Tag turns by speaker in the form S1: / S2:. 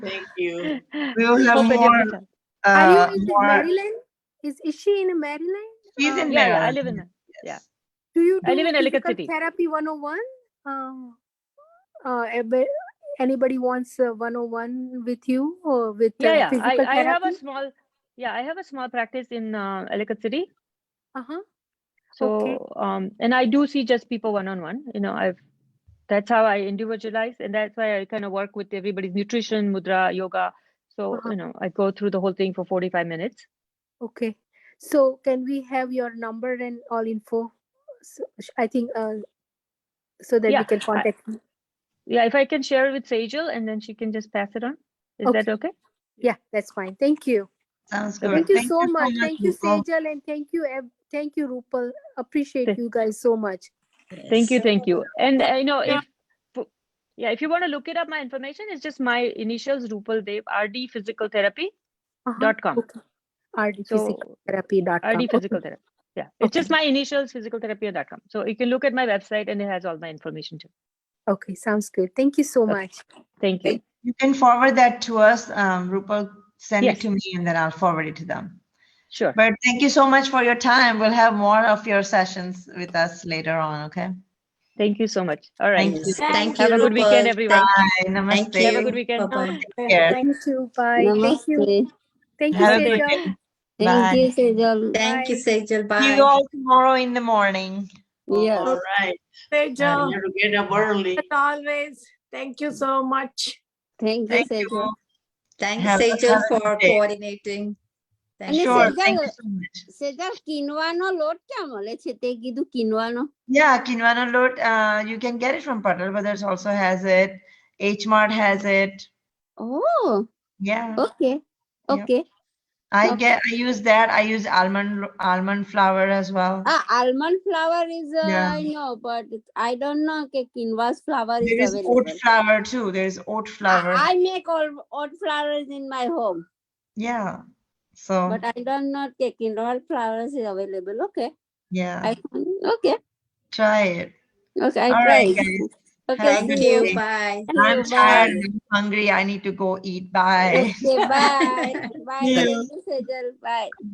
S1: Thank you.
S2: We will have
S3: Hope
S2: more.
S3: education.
S2: Uh,
S4: Are you in
S2: more.
S4: Maryland? Is, is she in Maryland?
S2: She's in
S3: Yeah,
S2: Maryland.
S3: yeah, I live in a-
S2: Yes.
S4: Do you
S3: I
S4: do
S3: live in Ellicott
S4: physical
S3: City.
S4: Therapy 101? Um, uh, ab- anybody wants uh, a 101 with you or with uh,
S3: yeah, yeah.
S4: physical
S3: I, I
S4: therapy?
S3: have a small, yeah, I have a small practice in uh, Ellicott City.
S4: uh-huh.
S3: So,
S4: Okay.
S3: um, and I do see just people one on one. You know, I've that's how I individualize, and that's why I kind of work with everybody's nutrition, mudra, yoga. So
S4: Uh-huh.
S3: you know, I go through the whole thing for forty five minutes.
S4: Okay. So can we have your number and all info? So, sh- I think uh, so that
S3: Yeah,
S4: we can contact you.
S3: Yeah, if I can share it with Sajal, and then she can just pass it on. Is
S4: Okay.
S3: that okay?
S4: Yeah, that's fine. Thank you.
S2: Sounds good.
S4: Thank you so much. Thank you,
S2: Nicole.
S4: Sejal, and thank you, ev- thank you, Rupal. Appreciate
S3: Th-
S4: you guys so much.
S3: Thank you, thank you. And I know if fo- yeah, if you want to look it up, my information is just my initials Rupal Dev rdphysicaltherapy.com.
S4: Uh-huh. Okay.
S3: So
S4: rdphysicaltherapy.com.
S3: RD
S4: Okay.
S3: Physical Therapy. Yeah, it's just my initials, physicaltherapy.com. So you can look at my website and it has all my information too.
S4: Okay, sounds good. Thank you so
S3: Okay.
S4: much.
S3: Thank you.
S2: Thank You can forward that to us, um, Rupal, send it
S3: Yes.
S2: to me and then I'll forward it to them.
S3: Sure.
S2: But thank you so much for your time. We'll have more of your sessions with us later on, okay?
S3: Thank you so much. All right.
S2: Thank you.
S5: Thank you.
S3: Have a good weekend,
S5: Rupal.
S3: everyone.
S2: Bye,
S5: Thank
S2: namaste.
S5: you.
S3: Have a good weekend.
S5: Bye-bye.
S2: Take care.
S4: Thank you. Bye. Thank you.
S6: Namaste.
S4: Thank you,
S2: Have a good
S4: Sejal.
S2: day.
S6: Thank
S2: Bye.
S6: you, Sejal.
S5: Thank you,
S4: Bye.
S5: Sejal.
S2: See
S5: Bye.
S2: you all tomorrow in the morning.
S6: Yes.
S1: All right. I
S7: Sejal,
S1: gotta get up early.
S7: as always, thank you so much.
S6: Thank you,
S2: Thank you.
S6: Sejal.
S5: Thank you,
S2: Have a-
S5: Sejal,
S2: have a good
S5: for
S2: day.
S5: coordinating. Thank you.
S2: Sure,
S6: Sejal,
S2: thank you so much.
S6: Sejal, કિનવાનો લોટ ક્યાં મળે છે તે કીધું કિનવાનો
S2: Yeah, quinoa lot, uh, you can get it from Patel Brothers also has it. H Mart has it.
S6: Oh
S2: Yeah,
S6: okay okay
S2: I
S6: Oh, Okay.
S2: get, I use that. I use almond, almond flour as well.
S6: આ almond flour is
S2: Yeah.
S6: I know but I don't know કે quinoa's flour
S2: There
S6: is
S2: is oat
S6: available
S2: flour too. There is oat flour.
S6: I make all oat flours in my home
S2: Yeah. So,
S6: but I don't know કે quinoa's flours is available okay
S2: yeah,
S6: I okay
S2: try it.
S6: Okay I
S2: Oh. All right,
S6: try
S2: guys.
S6: Okay
S2: Have a
S5: Thank
S2: good
S5: you.
S2: day.
S5: Bye.
S2: I'm tired. I'm hungry. I need to go eat. Bye.
S6: Bye bye
S5: Yeah.
S6: Thank you Sejal by